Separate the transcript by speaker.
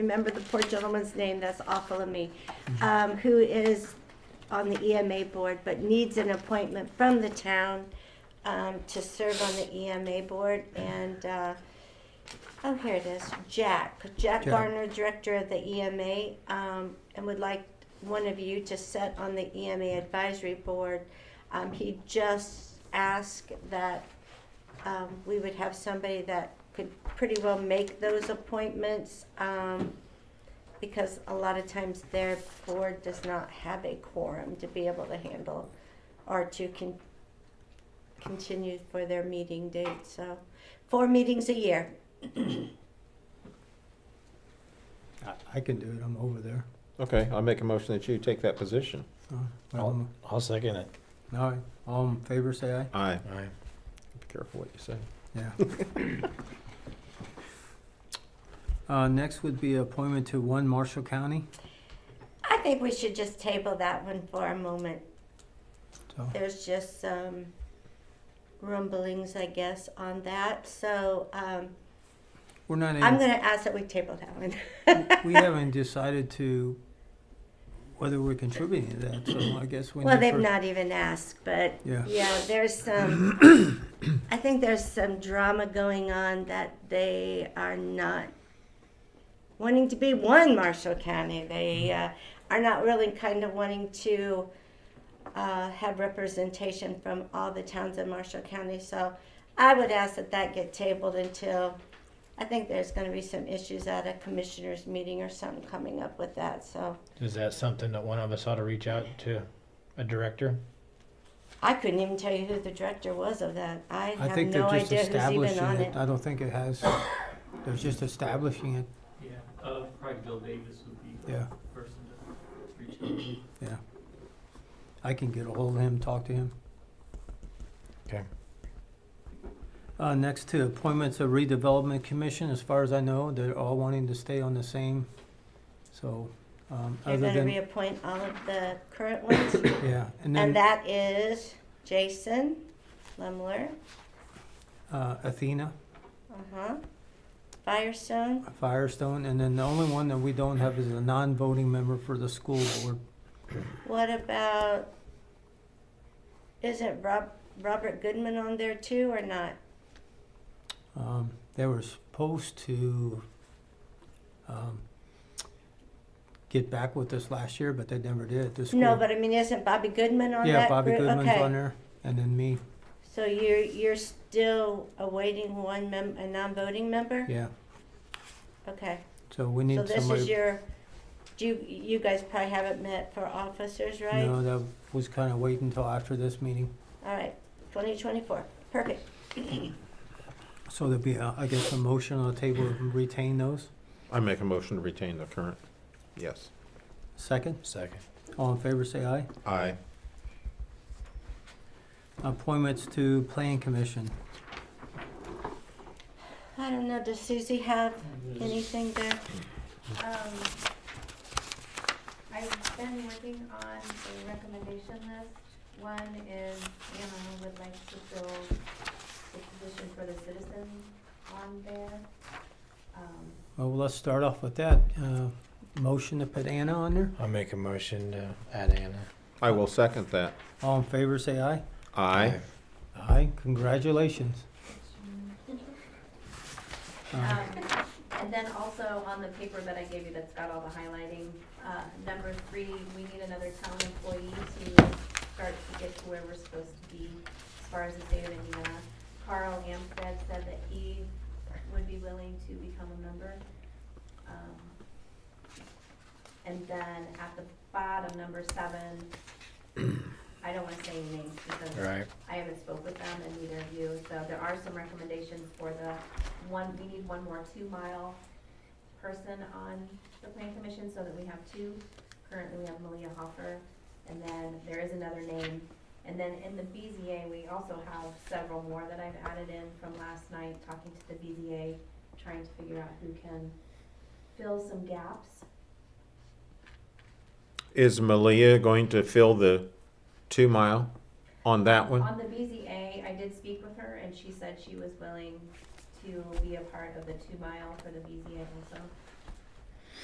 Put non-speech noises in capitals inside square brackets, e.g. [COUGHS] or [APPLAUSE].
Speaker 1: remember the poor gentleman's name, that's awful of me, um, who is on the EMA board, but needs an appointment from the town, um, to serve on the EMA board, and, uh, oh, here it is, Jack, Jack
Speaker 2: Jack.
Speaker 1: Garner, Director of the EMA, um, and would like one of you to sit on the EMA Advisory Board. Um, he just asked that um, we would have somebody that could pretty well make those appointments, um, because a lot of times their board does not have a quorum to be able to handle or to con- continue for their meeting date, so, four meetings a year.
Speaker 2: I- I can do it, I'm over there.
Speaker 3: Okay, I'll make a motion that you take that position.
Speaker 2: Uh,
Speaker 4: I'll,
Speaker 2: um,
Speaker 4: I'll second it.
Speaker 2: All right, all in favor, say aye.
Speaker 3: Aye.
Speaker 4: Aye.
Speaker 3: Be careful what you say.
Speaker 2: Yeah. Uh, Next would be appointment to One Marshall County,
Speaker 1: I think we should just table that one for a moment.
Speaker 2: so,
Speaker 1: There's just some rumblings, I guess, on that, so, um,
Speaker 2: we're not,
Speaker 1: I'm
Speaker 2: in-
Speaker 1: gonna ask that we table that one.
Speaker 2: we haven't decided to, whether we're contributing to that, so I guess we need
Speaker 1: Well, they've
Speaker 2: first-
Speaker 1: not even asked, but
Speaker 2: Yeah.
Speaker 1: yeah, there's some,
Speaker 2: [COUGHS]
Speaker 1: I think there's some drama going on that they are not wanting to be one Marshall County. They
Speaker 2: Mm-hmm.
Speaker 1: uh, are not really kind of wanting to uh, have representation from all the towns in Marshall County. So I would ask that that get tabled until, I think there's going to be some issues at a commissioners meeting or something coming up with that, so.
Speaker 4: Is that something that one of us ought to reach out to a director?
Speaker 1: I couldn't even tell you who the director was of that. I
Speaker 2: I
Speaker 1: have
Speaker 2: think they're
Speaker 1: no
Speaker 2: just
Speaker 1: idea who's even
Speaker 2: establishing
Speaker 1: on
Speaker 2: it, uh,
Speaker 1: it.
Speaker 2: I don't think it has, they're just establishing it,
Speaker 5: Yeah, uh, probably Bill Davis would be the
Speaker 2: yeah,
Speaker 5: person to reach out to.
Speaker 2: I can get a hold of him, talk to him.
Speaker 4: Okay.
Speaker 2: Uh, next to appointments of redevelopment commission, as far as I know, they're all wanting to stay on the same, so, um,
Speaker 1: They're
Speaker 2: other
Speaker 1: gonna
Speaker 2: than,
Speaker 1: reappoint all of the current ones.
Speaker 2: yeah, [COUGHS]
Speaker 1: And
Speaker 2: and then,
Speaker 1: that is Jason Lemler,
Speaker 2: uh, Athena,
Speaker 1: uh-huh, Firestone.
Speaker 2: Firestone, and then the only one that we don't have is a non-voting member for the school board.
Speaker 1: What about, isn't Rob, Robert Goodman on there too or not?
Speaker 2: Um, they were supposed to, um, get back with us last year, but they never did, the school.
Speaker 1: No, but I mean, isn't Bobby Goodman on that group?
Speaker 2: Yeah, Bobby Goodman's
Speaker 1: Okay.
Speaker 2: on there, and then me,
Speaker 1: So you're, you're still awaiting one mem, a non-voting member?
Speaker 2: yeah,
Speaker 1: Okay.
Speaker 2: so we need
Speaker 1: So
Speaker 2: somebody.
Speaker 1: this is your, do you, you guys probably haven't met for officers, right?
Speaker 2: No, that was kinda waiting until after this meeting.
Speaker 1: All right, twenty twenty-four, perfect.
Speaker 2: So there'll be, a- I guess, a motion on the table to retain those.
Speaker 3: I make a motion to retain the current. Yes.
Speaker 2: Second,
Speaker 4: Second.
Speaker 2: all in favor, say aye.
Speaker 3: Aye.
Speaker 2: Appointments to Plan Commission.
Speaker 1: I don't know, does Susie have anything there?
Speaker 6: Um, I've been working on a recommendation list. One is Anna would like to fill the position for the citizen on there. Um,
Speaker 2: Well, let's start off with that. Uh, motion to put Anna on there.
Speaker 4: I'll make a motion to add Anna.
Speaker 3: I will second that.
Speaker 2: All in favor, say aye.
Speaker 3: Aye.
Speaker 2: Aye, congratulations. Uh,
Speaker 6: um, And then also on the paper that I gave you that's got all the highlighting, uh, number three, we need another town employee to start to get to where we're supposed to be as far as the state of Indiana. Carl Amstad said that he would be willing to become a member. Um, And then at the bottom, number seven, I don't wanna say any names because
Speaker 4: Right.
Speaker 6: I haven't spoke with them and neither of you, so there are some recommendations for the one, we need one more two-mile person on the plan commission so that we have two. Currently, we have Malia Hoffer, and then there is another name. And then in the BZA, we also have several more that I've added in from last night, talking to the BZA, trying to figure out who can fill some gaps.
Speaker 3: Is Malia going to fill the two mile on that one?
Speaker 6: On the BZA, I did speak with her, and she said she was willing to be a part of the two mile for the BZA also.